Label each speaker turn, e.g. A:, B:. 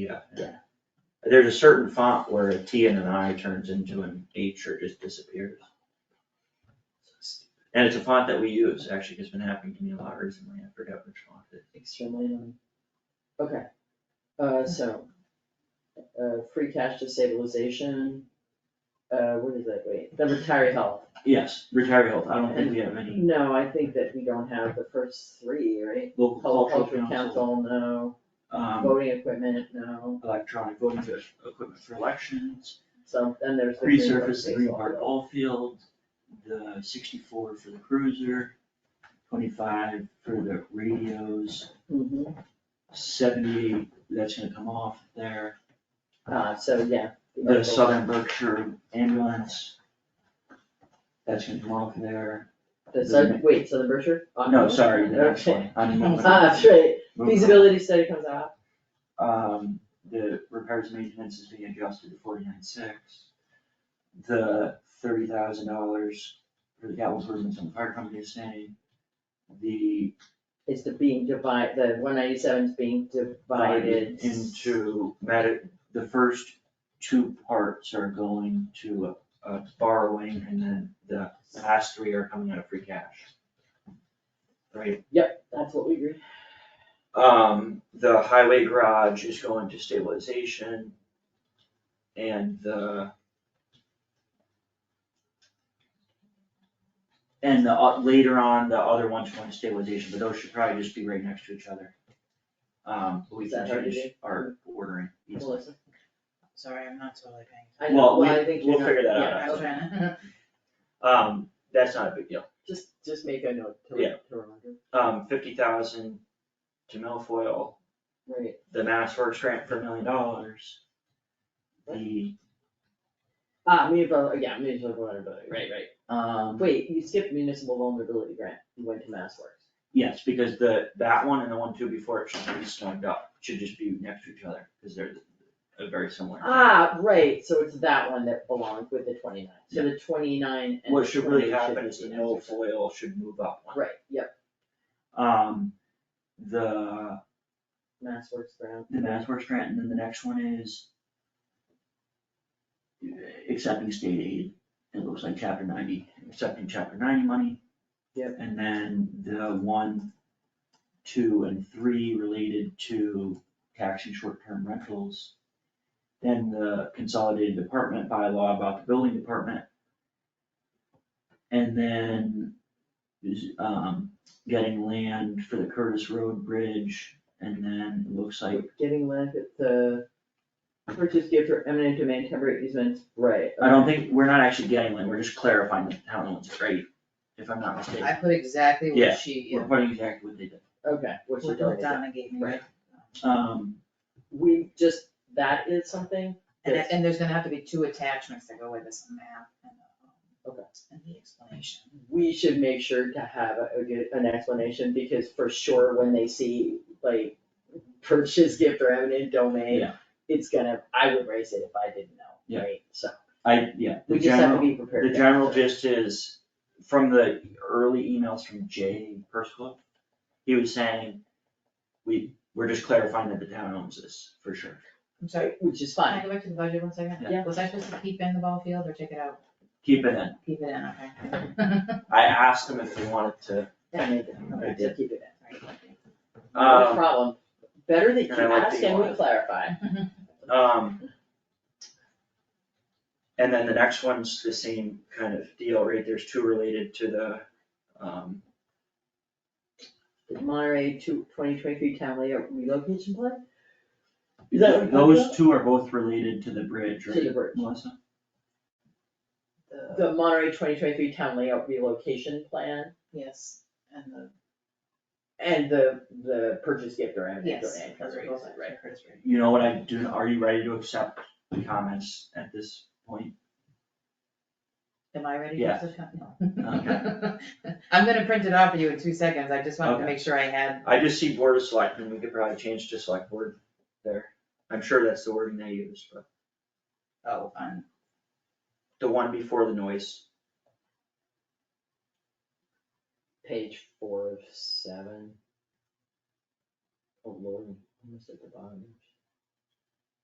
A: Yeah.
B: Yeah.
A: There's a certain font where a T and an I turns into an H or just disappears. And it's a font that we use, actually, it's been happening to me a lot recently, I forgot which font it is.
B: extremely annoying. Okay, uh, so, uh, free cash to stabilization, uh, what is that, wait, the retiree health?
A: Yes, retiree health, I don't think we have any
B: No, I think that we don't have the first three, right?
A: local
B: Cultural
A: cultural
B: council, no,
A: um,
B: voting equipment, no,
A: electronic voting for- equipment for elections,
B: so then there's the. green card
A: resurface the Green
B: baseball
A: Park
B: field.
A: ball field, the sixty-four for the cruiser, twenty-five for the radios,
B: Mhm.
A: seventy, that's gonna come off there.
B: uh, so, yeah.
A: The Southern Berkshire ambulance, that's gonna come off there.
B: The Southern, wait, Southern Berkshire?
A: No, sorry, the next one,
B: Okay.
A: I'm moving.
B: Ah, that's right,
A: moving on.
B: feasibility study comes out,
A: Um, the repairs and maintenance is being adjusted to forty-nine six. The thirty thousand dollars for the capital improvements on the fire company is staying. The.
B: it's the being divided, the one ninety-seven is being divided.
A: Into medi- the first two parts are going to a- a borrowing and then the last three are coming out of free cash. Right,
B: That's what we agree.
A: um, the highway garage is going to stabilization. And the. And the, o- later on, the other ones go into stabilization, but those should probably just be right next to each other. Um, but we
B: Is that
A: can
B: hard to
A: change
B: do?
A: our ordering easily.
B: Melissa?
C: Sorry, I'm not totally paying.
B: I know,
A: Well, we,
B: I think
A: we'll
B: you're
A: figure that
B: not-
A: out.
B: yeah,
C: I was
B: okay.
C: trying to.
A: Um, that's not a big deal.
B: Just, just make a note to,
A: Yeah.
B: to remember.
A: Um, fifty thousand to Milfoil,
B: Right,
A: the Mass Works grant for a million dollars. The,
B: ah, municipal, yeah, municipal vulnerability, right, right.
A: um,
B: Wait, you skipped municipal vulnerability grant, you went to Mass Works.
A: yes, because the, that one and the one two before it should be stoned up, should just be next to each other, because they're uh, very similar.
B: Ah, right, so it's that one that belongs with the twenty-nine, so the twenty-nine and
A: What should really
B: 20
A: happen is
B: be
A: the
B: next to each other.
A: Milfoil should move up one.
B: Right, yep,
A: Um, the,
B: Mass Works grant,
A: the Mass Works grant, and then the next one is uh, accepting state aid, it looks like chapter ninety, accepting chapter ninety money.
B: Yep.
A: And then the one, two, and three related to taxing short-term rentals. Then the consolidated department bylaw about the building department. And then, um, getting land for the Curtis Road Bridge, and then it looks like
B: getting land at the purchase gift or eminent domain temporary easements, right.
A: I don't think, we're not actually getting one, we're just clarifying the town owns it, right? If I'm not
C: I
A: mistaken,
C: put exactly
A: Yeah,
C: what she,
A: we're putting exactly what they did.
B: Okay, which is.
C: what Donna gave me.
B: Right.
A: Um,
B: We just, that is something
C: And,
B: Yes.
C: and there's gonna have to be two attachments that go with this a map and the, um,
B: Okay.
C: and the explanation.
B: we should make sure to have a, a good- an explanation, because for sure, when they see like purchase gift or eminent domain,
A: Yeah.
B: it's gonna, I would raise it if I didn't know,
A: Yeah.
B: right? So,
A: I, yeah, the
B: we just have to
A: general,
B: be prepared.
A: the
B: for that.
A: general gist is, from the early emails from Jay Persklow, he was saying, we, we're just clarifying that the town owns this, for sure.
C: I'm sorry,
B: Which is
C: can
B: fine,
C: I go back to the budget one second?
B: Yeah.
C: Was I supposed to keep in the ball field or take it out?
A: Keep it in,
C: Keep it in, okay.
A: I asked him if he wanted to,
B: I made it,
A: I
B: so
A: did.
B: keep it in, no
A: um,
B: problem, better that you
A: and I like that
B: ask
A: you
B: and we
A: wanted-
B: clarify.
A: um. And then the next one's the same kind of deal, right, there's two related to the, um,
B: Monterey to twenty twenty-three town layout relocation plan? Is that what you're talking
A: Those
B: about?
A: two are both related to the bridge,
B: To
A: right?
B: the bridge.
A: Melissa?
C: The,
B: The Monterey twenty twenty-three town layout relocation plan?
C: yes, and the,
B: And the, the purchase gift or eminent
C: yes.
B: domain,
C: those are
B: right,
C: both at
B: right.
C: Curtis Ray.
A: You know what I do, are you ready to accept the comments at this point?
C: Am I ready to
A: Yeah.
C: accept? No.
A: Okay.
C: I'm gonna print it off for you in two seconds, I just wanted to
A: Okay.
C: make sure I had,
A: I just see board of selectmen, we could probably change to select board there. I'm sure that's the wording they use, but
C: oh, on,
A: the one before the noise,
B: Page four of seven. Oh lord, almost at the bottom.